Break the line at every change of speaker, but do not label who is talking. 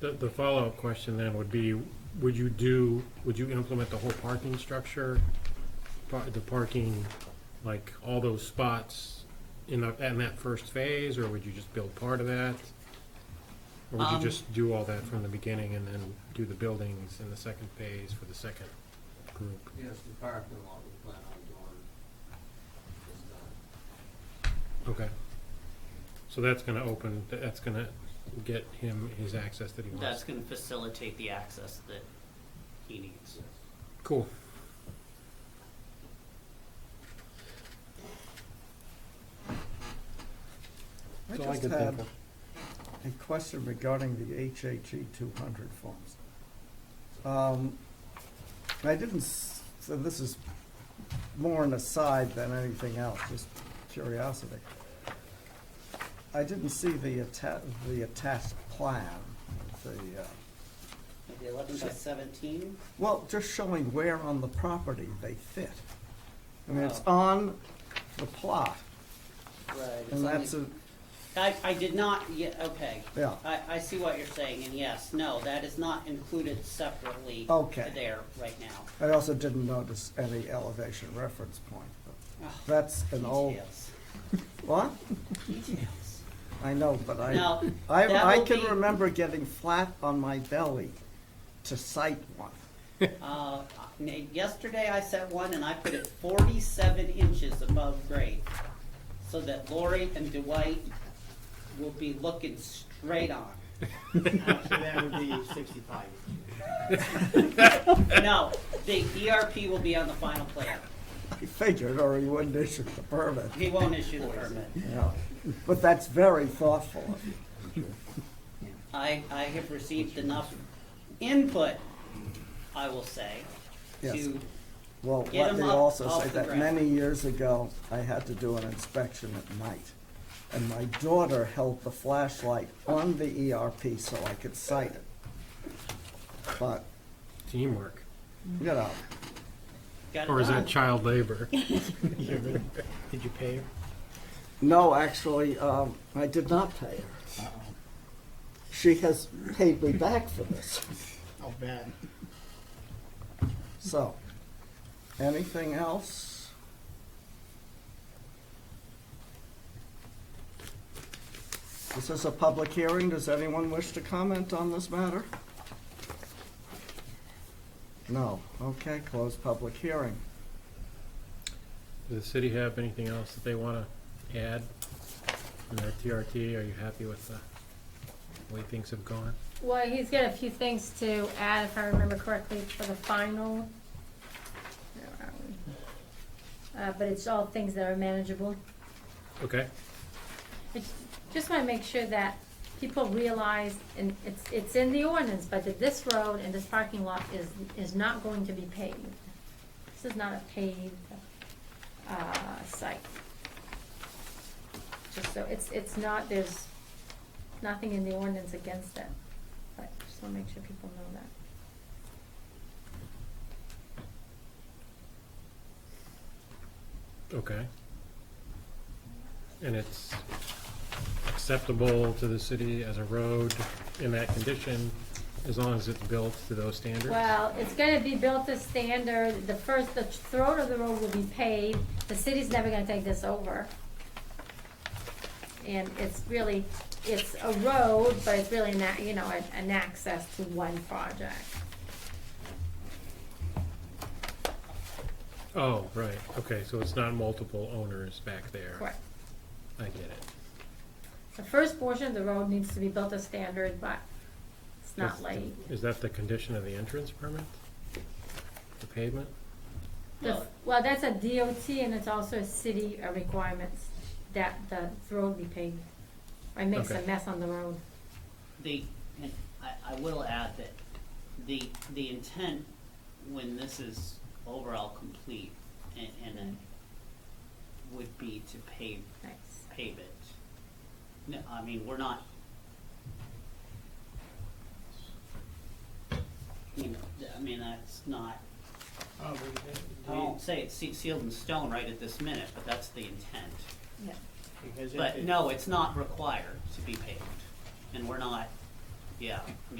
The, the follow-up question then would be, would you do, would you implement the whole parking structure? Par- The parking, like, all those spots in the, in that first phase, or would you just build part of that? Or would you
Um,
just do all that from the beginning and then do the buildings in the second phase for the second group?
Yes, the parking lot we plan on doing is done.
Okay. So that's gonna open, that's gonna get him his access that he wants.
That's gonna facilitate the access that he needs.
Cool.
I
That's all I
just
can think
had
of.
a question regarding the HHE two hundred forms. Um, I didn't, s- so this is more an aside than anything else, just curiosity. I didn't see the atta- the attached plan, the, uh,
The eleven by seventeen?
well, just showing where on the property they fit. I mean, it's
Oh.
on the plot,
Right.
and that's a,
I, I did not, yeah, okay.
Yeah.
I, I see what you're saying, and yes, no, that is not included separately.
Okay.
There, right now.
I also didn't notice any elevation reference point, but
Ugh,
that's an old,
Details,
what?
details.
I know, but I,
Now, that
I, I
will
can
be-
remember getting flat on my belly to cite one.
Uh, n- yesterday I set one and I put it forty-seven inches above grade, so that Lori and Dwight will be looking straight on.
Actually, that would be sixty-five.
No, the ERP will be on the final plan.
I figured, or he wouldn't issue the permit.
He won't issue the permit.
Yeah. But that's very thoughtful of you.
I, I have received enough input, I will say,
Yes.
to,
Well,
Get
let
him
me
up
also
off
say
the
that
ground.
many years ago, I had to do an inspection at night. And my daughter held the flashlight on the ERP so I could cite it. But,
Teamwork.
you know,
got it
Or is
done.
that child labor?
Did you pay her?
No, actually, um, I did not pay her. She has paid me back for this.
I'll bet.
So, anything else? This is a public hearing. Does anyone wish to comment on this matter? No. Okay, close public hearing.
Does the city have anything else that they want to add in their TRT? Are you happy with the way things have gone?
Well, he's got a few things to add, if I remember correctly, for the final. Where are we? Uh, but it's all things that are manageable.
Okay,
I ju- just wanna make sure that people realize, and it's, it's in the ordinance, but that this road and this parking lot is, is not going to be paved. This is not a paved, uh, site. Just so, it's, it's not, there's nothing in the ordinance against it, but just wanna make sure people know that.
okay. And it's acceptable to the city as a road in that condition, as long as it's built to those standards?
Well, it's gonna be built to standard, the first, the throat of the road will be paved, the city's never gonna take this over. And it's really, it's a road, but it's really not, you know, an, an access to one project.
Oh, right, okay, so it's not multiple owners back there?
Correct.
I get it.
The first portion of the road needs to be built to standard, but it's not
That's-
like,
Is that the condition of the entrance permit? The pavement?
the,
Well-
well, that's a DOT and it's also a city uh, requirements that the road be paved. Or it makes a
Okay.
mess on the road.
The, and I, I will add that the, the intent when this is overall complete and, and it would be to pave,
Thanks.
pave it. No, I mean, we're not. You know, I mean, that's not,
Oh,
I won't say it's se- sealed in stone right at this minute, but that's the intent.
Yeah.
because if
But
it-
no, it's not required to be paved, and we're not, yeah, I mean,